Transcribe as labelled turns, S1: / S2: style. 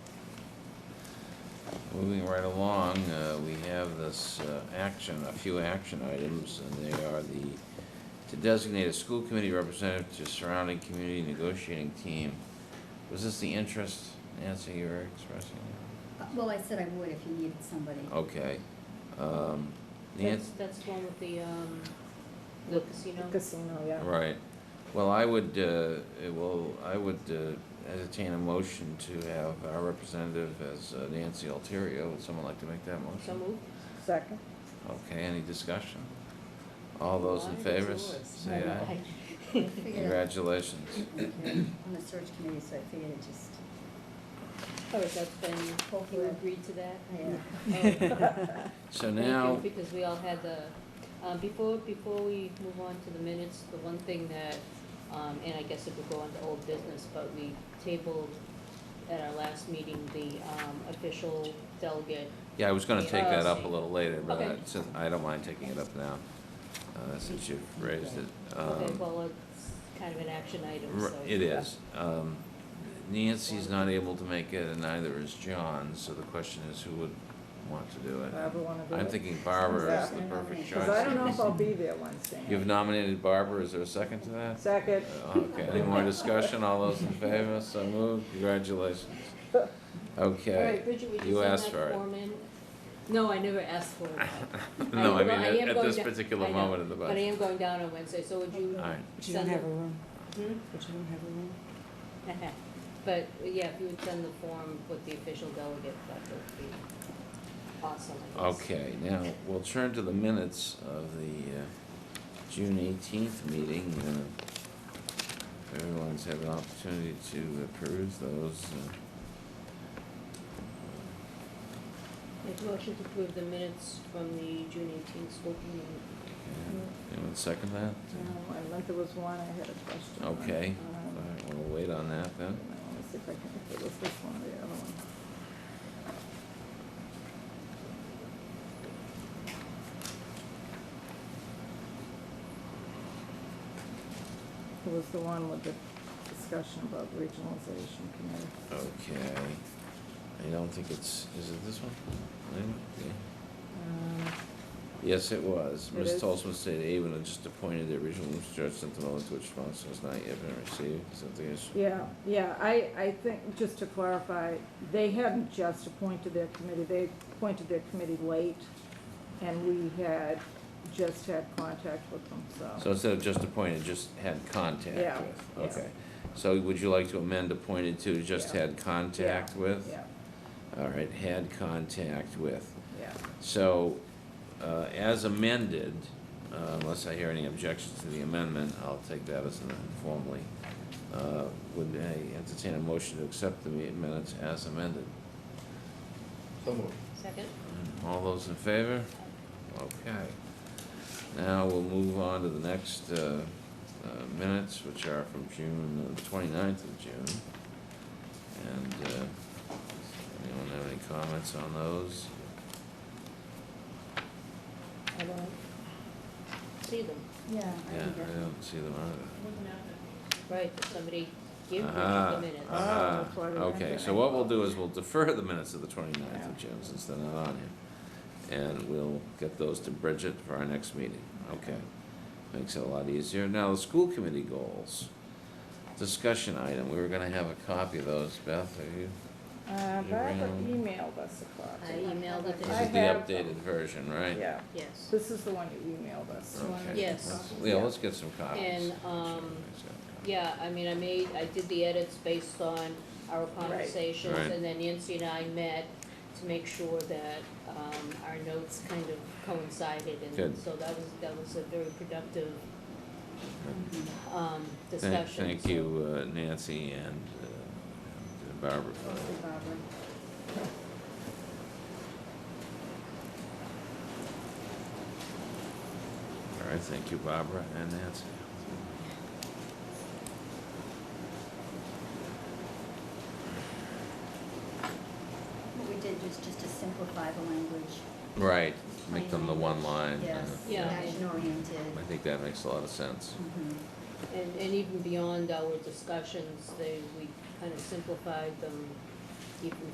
S1: Moving right along, uh, we have this uh, action, a few action items, and they are the, to designate a school committee representative to surrounding community negotiating team. Was this the interest, Nancy, you were expressing?
S2: Uh, Well, I said I would if you needed somebody.
S1: Okay. Um,
S3: That's,
S1: Nancy,
S3: that's the one with the, um, the casino.
S4: Casino, yeah.
S1: right. Well, I would, uh, eh, well, I would uh, entertain a motion to have our representative as uh, Nancy Alterio. Would someone like to make that motion?
S3: So moved.
S4: Second,
S1: Okay, any discussion? All those in
S3: Why?
S1: favor,
S3: It's
S1: s-
S3: yours.
S1: say aye.
S2: Figured I-
S1: Congratulations.
S2: uh, On the search committee, so I figured it just,
S3: Oh, is that when you agreed to that?
S2: yeah.
S3: Oh.
S1: So
S3: Thank you,
S1: now,
S3: Because we all had the, um, before, before we move on to the minutes, the one thing that, um, and I guess it would go into old business, but we tabled at our last meeting, the, um, official delegate.
S1: yeah, I was gonna take that up a
S3: Okay.
S1: little later, but I-
S3: Okay.
S1: since, I don't mind taking it up now, uh, since you've raised it.
S3: Okay,
S1: Um,
S3: well, it's kind of an action item,
S1: r-
S3: so.
S1: It is. Um, Nancy's not able to make it, and neither is John, so the question is who would want to do it?
S4: whoever wanna do it.
S1: I'm thinking Barbara is the
S4: Yeah.
S1: perfect choice.
S4: Cause I don't know if I'll be there Wednesday.
S1: You've nominated Barbara, is there a second to that?
S4: Second,
S1: Okay, any more discussion? All those in favor, so moved. Congratulations.
S3: All right,
S1: Okay.
S3: Bridget, would
S1: You
S3: you send
S1: asked for
S3: that
S1: it.
S3: form in? No, I never asked for it.
S1: No, I
S3: well, I
S1: mean,
S3: am
S1: at- at
S3: going
S1: this
S3: to-
S1: particular
S3: I know,
S1: moment of the
S3: But I
S1: budget.
S3: am going down on Wednesday, so would you?
S1: All right,
S5: But you don't
S3: send
S5: have
S3: the-
S5: a room,
S3: Hmm?
S5: but you don't have a room.
S3: But, yeah, if you would send the form with the official delegate, that would be awesome, I guess.
S1: okay, now, we'll turn to the minutes of the uh, June eighteenth meeting. Uh, Everyone's had an opportunity to peruse those. uh,
S3: Make a motion to approve the minutes from the June eighteenth school meeting.
S1: okay. Anyone second that?
S4: no, I meant there was one, I had a question. on.
S1: Okay, all
S4: Um,
S1: right, we'll wait on that then.
S4: Let me see if I can, if it was this one or the other one. It was the one with the discussion about regionalization committee.
S1: Okay, I don't think it's, is it this one? No? Yeah.
S4: Um,
S1: Yes, it was.
S4: It
S1: Ms.
S4: is.
S1: Tolson stated Avon had just appointed the original Leamster Judge sent the moment to which response has not yet been received. Something is,
S4: Yeah, yeah, I, I think, just to clarify, they hadn't just appointed their committee, they appointed their committee late, and we had, just had contact with them,
S1: so
S4: so.
S1: instead of just appointed, just had contact
S4: Yeah, yeah.
S1: with. Okay. So would you like to amend appointed to just
S4: Yeah.
S1: had contact with?
S4: Yeah,
S1: All right, had contact with.
S4: yeah,
S1: So, uh, as amended, uh, unless I hear any objections to the amendment, I'll take that as an informally. Uh, Would I entertain a motion to accept the minutes as amended?
S6: So moved.
S3: Second?
S1: All those in favor? Okay. Now we'll move on to the next uh, uh, minutes, which are from June, the 29th of June. And uh, anyone have any comments on those?
S3: I don't see them.
S2: Yeah. I
S1: Yeah,
S2: think
S1: I
S2: that-
S1: don't see them either.
S3: Right, did somebody give me
S1: Aha,
S3: the minutes?
S1: aha.
S4: that's why we don't
S1: Okay,
S4: get
S1: so
S4: them.
S1: what we'll do is we'll defer the minutes of the 29th of June since they're not on here. And we'll get those to Bridget for our next meeting. Okay. Makes it a lot easier. Now, the school committee goals. Discussion item. We were gonna have a copy of those. Beth, are you?
S4: Uh, Barbara
S1: Around.
S4: emailed us a
S3: I
S4: copy.
S3: emailed it
S1: This
S3: to,
S4: I
S1: is the
S4: have them.
S1: updated version, right?
S4: Yeah,
S3: yes.
S4: this is the one you emailed us.
S1: Okay.
S3: Yes.
S1: Let's- Yeah, let's get some copies.
S3: And, um, Yeah, I mean, I made, I did the edits based on our conversations,
S1: Right.
S3: and then Nancy and I met to make sure that, um, our notes kind of coincided, and
S1: Good.
S3: so that was, that was a very productive,
S2: Mhm.
S3: um,
S1: Thank-
S3: discussion.
S1: Thank
S3: so-
S1: you, uh, Nancy and uh, and Barbara. for that.
S2: Mostly Barbara.
S1: All right, thank you, Barbara and Nancy.
S2: What we did was just to simplify the language.
S1: Right, make them the one line. uh,
S2: Yes,
S3: Yeah.
S2: action oriented.
S1: I think that makes a lot of sense.
S2: Mm-hmm.
S3: And, and even beyond our discussions, they, we kind of simplified them even